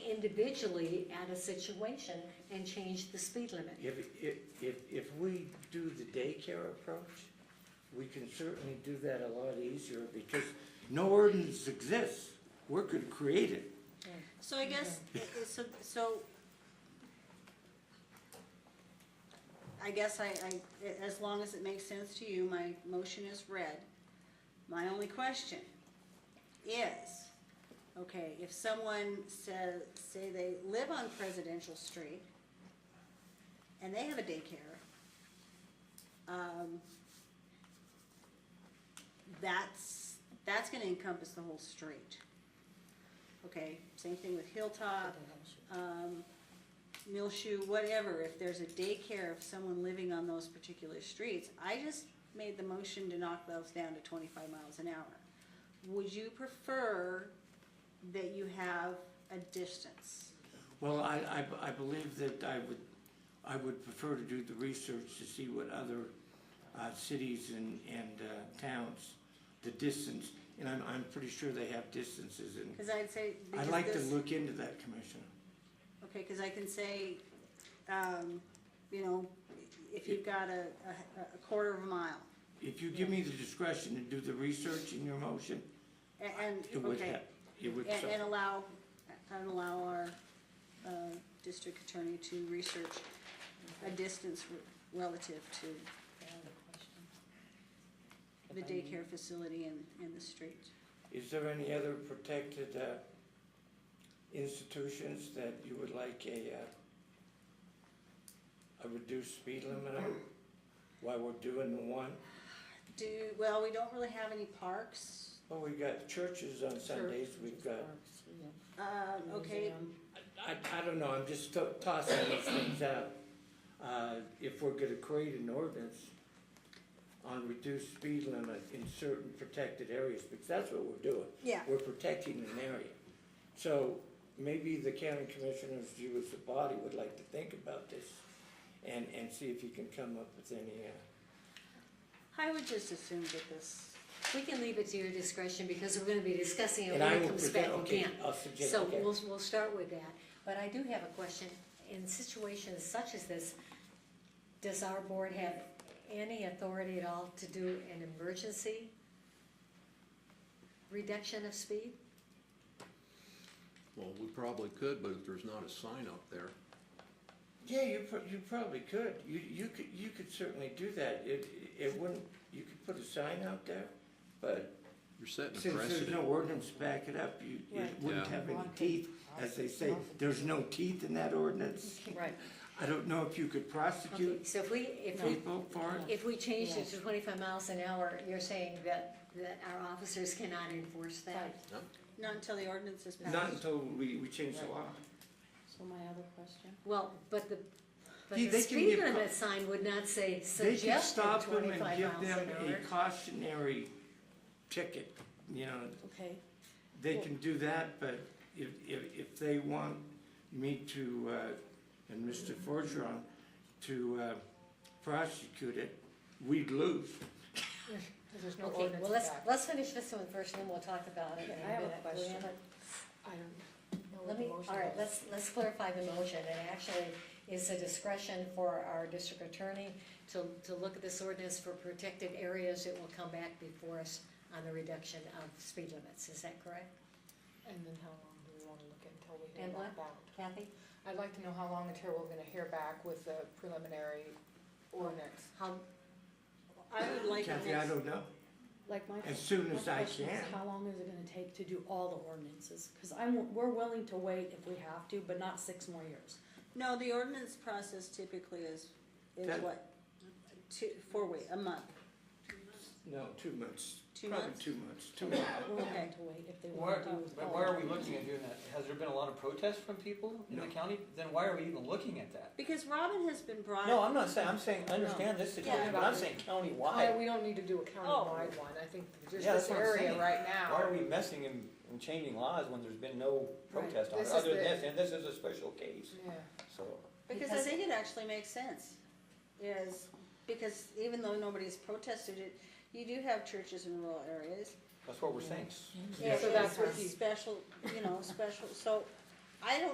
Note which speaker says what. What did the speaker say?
Speaker 1: individually at a situation and change the speed limit.
Speaker 2: If, if, if, if we do the daycare approach, we can certainly do that a lot easier because no ordinance exists. We're gonna create it.
Speaker 3: So I guess, uh, so, so. I guess I, I, as long as it makes sense to you, my motion is read. My only question is, okay, if someone says, say they live on Presidential Street and they have a daycare, um, that's, that's gonna encompass the whole street. Okay, same thing with Hilltop, um, Milshu, whatever, if there's a daycare of someone living on those particular streets, I just made the motion to knock those down to twenty-five miles an hour. Would you prefer that you have a distance?
Speaker 2: Well, I, I, I believe that I would, I would prefer to do the research to see what other, uh, cities and, and, uh, towns, the distance, and I'm, I'm pretty sure they have distances and
Speaker 3: Cause I'd say.
Speaker 2: I'd
Speaker 3: because
Speaker 2: like to
Speaker 3: this-
Speaker 2: look into that, Commissioner.
Speaker 3: Okay, cause I can say, um, you know, if you've got a, a, a quarter of a mile,
Speaker 2: If you give me the discretion to do the research in your motion,
Speaker 3: a- and,
Speaker 2: it would
Speaker 3: okay.
Speaker 2: help. It would,
Speaker 3: And,
Speaker 2: so-
Speaker 3: and allow, and allow our, uh, district attorney to research a distance re- relative to the daycare facility and, and the street.
Speaker 2: Is there any other protected uh, institutions that you would like a, uh, a reduced speed limit on? While we're doing the one,
Speaker 3: Do, well, we don't really have any parks,
Speaker 2: well, we got churches on Sundays, we've got,
Speaker 3: um, okay,
Speaker 2: I, I don't know, I'm just to- tossing these things out. Uh, If we're gonna create an ordinance on reduced speed limit in certain protected areas, because that's what we're doing.
Speaker 3: yeah,
Speaker 2: we're protecting an area. So maybe the county commissioners, you as the body, would like to think about this and, and see if you can come up with any, uh,
Speaker 3: I would just assume that this,
Speaker 1: We can leave it to your discretion because we're gonna be discussing it
Speaker 2: and
Speaker 1: when
Speaker 2: I
Speaker 1: it
Speaker 2: will
Speaker 1: comes
Speaker 2: present,
Speaker 1: back
Speaker 2: okay,
Speaker 1: again.
Speaker 2: I'll suggest,
Speaker 1: So
Speaker 2: okay.
Speaker 1: we'll, we'll start with that, but I do have a question, in situations such as this, does our board have any authority at all to do an emergency reduction of speed?
Speaker 4: Well, we probably could, but if there's not a sign up there,
Speaker 2: Yeah, you, pro- you probably could. You, you could, you could certainly do that. It, it wouldn't, you could put a sign out there, but
Speaker 4: you're setting a
Speaker 2: since there's no
Speaker 4: precedent.
Speaker 2: ordinance to back it up, you, it
Speaker 5: Right.
Speaker 2: wouldn't
Speaker 4: Yeah.
Speaker 2: have any teeth. As they say, there's no teeth in that ordinance.
Speaker 1: Right.
Speaker 2: I don't know if you could
Speaker 1: Okay,
Speaker 2: prosecute
Speaker 1: so if we, if we,
Speaker 2: people for it.
Speaker 1: if we changed it to twenty-five miles an hour, you're saying that, that our officers cannot enforce that?
Speaker 4: No?
Speaker 3: not until the ordinance is passed.
Speaker 2: Not until we, we change the law.
Speaker 5: So my other question?
Speaker 1: Well, but the, but
Speaker 2: Gee,
Speaker 1: the
Speaker 2: they can be
Speaker 1: speed
Speaker 2: a co-
Speaker 1: limit sign would not say
Speaker 2: They could
Speaker 1: suggested
Speaker 2: stop them and
Speaker 1: twenty-five
Speaker 2: give
Speaker 1: miles
Speaker 2: them
Speaker 1: an hour.
Speaker 2: a cautionary ticket, you know,
Speaker 5: Okay,
Speaker 2: they can do that, but if, if, if they want me to, uh, and Mr. Forgeron to, uh, prosecute it, we'd lose.
Speaker 1: Okay, well, let's, let's finish this one first, and then we'll talk about it. in
Speaker 5: Okay, I have a
Speaker 1: minute. We
Speaker 5: question.
Speaker 1: haven't-
Speaker 5: I don't know what
Speaker 1: Let
Speaker 5: the
Speaker 1: me,
Speaker 5: motion is.
Speaker 1: all right, let's, let's clarify the motion, and actually, it's a discretion for our district attorney to, to look at this ordinance for protected areas, it will come back before us on the reduction of speed limits, is that correct?
Speaker 5: And then how long do we wanna look until we
Speaker 1: And
Speaker 5: hear
Speaker 1: what?
Speaker 5: back about?
Speaker 1: Kathy,
Speaker 6: I'd like to know how long until we're gonna hear back with the preliminary ordinance.
Speaker 1: how,
Speaker 3: I would like a
Speaker 2: Kathy, I
Speaker 3: next,
Speaker 2: don't know,
Speaker 5: Like my.
Speaker 2: as soon
Speaker 5: my
Speaker 2: as I
Speaker 5: question
Speaker 2: can.
Speaker 5: is How long is it gonna take to do all the ordinances? Cause I'm, we're willing to wait if we have to, but not six more years.
Speaker 3: no, the ordinance process typically is, is
Speaker 2: That-
Speaker 3: what? Two, four weeks, a month,
Speaker 2: No, two months.
Speaker 3: Two months?
Speaker 2: Probably two months, two months.
Speaker 5: We're
Speaker 3: Okay.
Speaker 5: willing to wait if they wanna
Speaker 7: Where,
Speaker 5: do
Speaker 7: but
Speaker 5: all
Speaker 7: why are
Speaker 5: the
Speaker 7: we
Speaker 5: ordinances.
Speaker 7: looking at doing that? Has there been a lot of protest from people in the
Speaker 2: No.
Speaker 7: county? Then why are we even looking at that?
Speaker 3: because Robin has been brought.
Speaker 7: No, I'm not saying, I'm saying, I understand this situation, but I'm saying
Speaker 6: I-
Speaker 7: countywide.
Speaker 6: We don't need to do a countywide
Speaker 1: Oh.
Speaker 6: one, I think just
Speaker 7: Yeah,
Speaker 6: this
Speaker 7: that's what I'm
Speaker 6: area
Speaker 7: saying.
Speaker 6: right
Speaker 7: Why are
Speaker 6: now.
Speaker 7: we messing and, and changing laws when there's been no protest on it,
Speaker 6: This is
Speaker 7: other
Speaker 6: the-
Speaker 7: than this, and this is a special case,
Speaker 6: Yeah.
Speaker 7: so.
Speaker 3: Because I
Speaker 1: Because-
Speaker 3: think it actually makes sense, is, because even though nobody's protested it, you do have churches in rural areas.
Speaker 7: That's what we're saying.
Speaker 3: Yeah,
Speaker 6: So that's
Speaker 3: it's
Speaker 6: what he-
Speaker 3: Special, you know, special, so, I don't